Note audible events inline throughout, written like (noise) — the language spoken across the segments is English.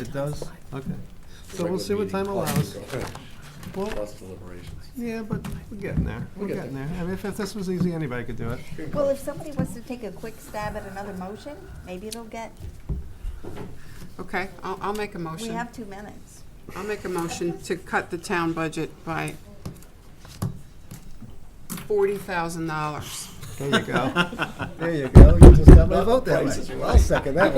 It does? Okay. So Regular we'll see what meeting time allows. plus- Well, Plus deliberations. yeah, but we're getting there. We're We'll get getting there. I mean, if if this was easy, anybody could do it. Well, if somebody wants to take a quick stab at another motion, maybe it'll get, Okay, I'll, I'll make a we motion. have two minutes. I'll make a motion to cut the town budget by forty thousand dollars. There you (laughs) go. There you go. You just got my vote that prices way. we I'll like. second that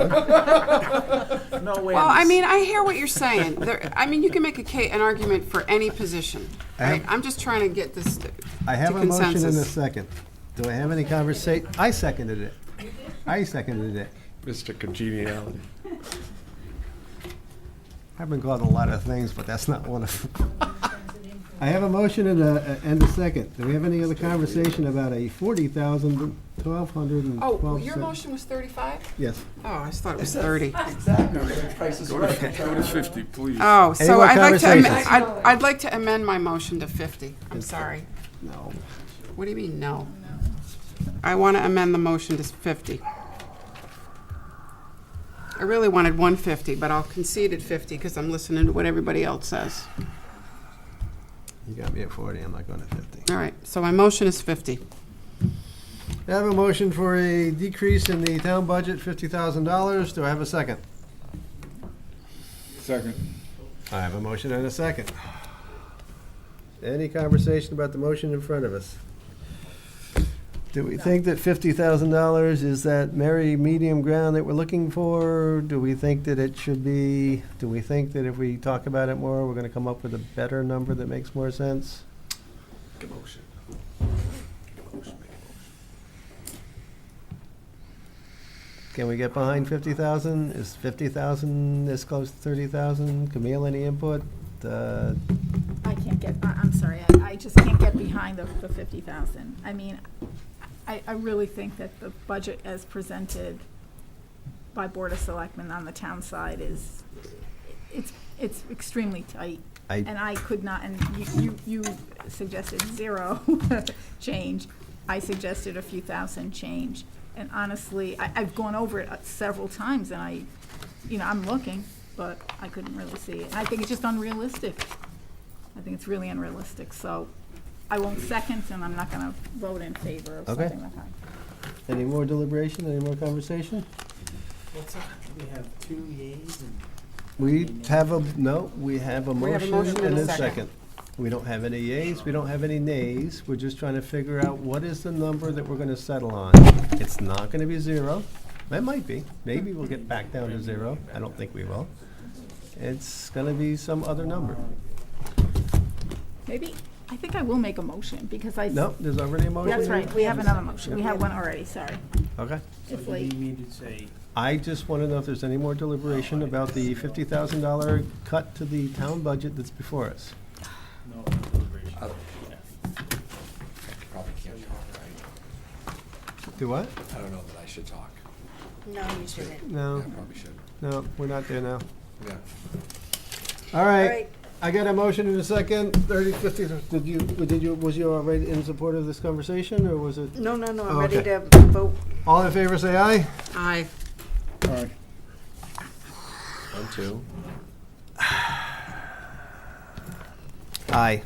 (laughs) one. No wins. Well, I mean, I hear what you're saying. There, I mean, you can make a ca- an argument for any position, right? Um, I'm just trying to get this to I have a motion and a consensus. second. Do I have any conversation? I seconded it. I seconded it. Mr. Congeniality. I've been called a lot of things, but that's not one of them. (laughs) I have a motion and a, and a second. Do we have any other conversation about a forty thousand, twelve hundred and Oh, twelve? well, your motion was thirty-five? Yes. Oh, I just thought it was thirty. Go to fifty, please. Oh, Any so more I'd like to, am- conversations? I'd, I'd like to amend my motion to fifty. I'm sorry. No. What do you mean, no? I want to amend the motion to 50. I really wanted 150, but I'll concede at 50 because I'm listening to what everybody else says. You got me at forty, I'm not going to fifty. All right, so my motion is 50. I have a motion for a decrease in the town budget, fifty thousand dollars. Do I have a second? Second. I have a motion and a second. Any conversation about the motion in front of us? Do we think that fifty thousand dollars is that merry medium ground that we're looking for? Do we think that it should be, do we think that if we talk about it more, we're gonna come up with a better number that makes more sense? Make a motion. Make a motion, make a motion. Can we get behind fifty thousand? Is fifty thousand this close to thirty thousand? Camille, any input? Uh, I can't get, I- I'm sorry, I, I just can't get behind the, the fifty thousand. I mean, I, I really think that the budget as presented by Board of Selectmen on the town side is, it's, it's extremely tight. I- And I could not, and you, you you suggested zero (laughs) change. I suggested a few thousand change. And honestly, I, I've gone over it uh, several times and I, you know, I'm looking, but I couldn't really see it. I think it's just unrealistic. I think it's really unrealistic, so I won't second, and I'm not gonna vote in favor of Okay. something like that. Any more deliberation, any more conversation? What's up? We have two yays and We have a, no, we have a We have a motion motion and a second. We don't have any yays, we don't have any nays, we're just trying to figure out what is the number that we're gonna settle on. It's not gonna be zero, it might be, maybe we'll get back down to zero, I don't think we will. It's gonna be some other number. Maybe, I think I will make a motion, because I. No, there's already a motion? That's right, we have another motion, we have one already, sorry. Okay. so It's you late. need me to say, I just want to know if there's any more deliberation about the fifty thousand dollar cut to the town budget that's before us. no, no deliberation. Probably can't talk, right? Do what? I don't know that I should talk. No, you shouldn't. I No, probably should. no, we're not there now. Yeah. All All right, right, I got a motion in a second, thirty, fifty, did you, did you, was you already in support of this conversation, or was it? no, no, no, Oh, I'm ready okay. to vote. All in favor, say aye. Aye. One, two. Aye.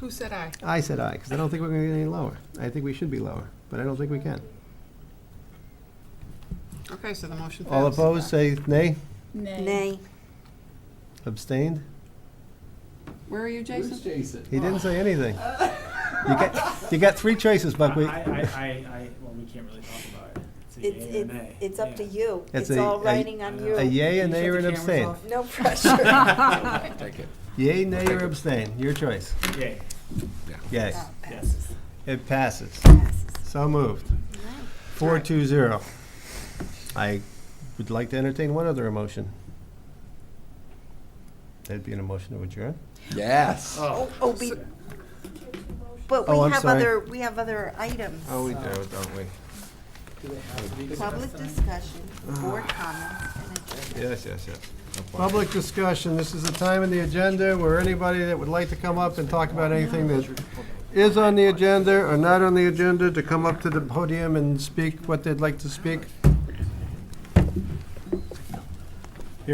Who said aye? I said aye, because I don't think we're gonna get any lower. I think we should be lower, but I don't think we can. Okay, so the motion fails. All opposed, say nay. Nay. Abstained? Where are you, Jason? He didn't say anything. You got, you got three choices, (laughs) I, Buckwheat. I, I, I, well, we can't really talk about it. It's, It's a yay it's, or nay. it's up to Yeah. you. It's It's a- all a- riding on A you. yay, a nay, or an Shut the cameras abstain? off? No pressure. Take it. Yay, nay, or abstain, your choice. Yay. Yes, Passes, it passes. passes. So moved. Four two zero. I would like to entertain one other emotion. That'd be an emotion to adjourn? Yes. Oh, oh, be, but Oh, we I'm have sorry. other, we have other items. Oh, we do, don't we? Public discussion, board comments, and adjournment. Yes, yes, yes. Public discussion, this is a time in the agenda where anybody that would like to come up and talk about anything that is on the agenda or not on the agenda, to come up to the podium and speak what they'd like to speak.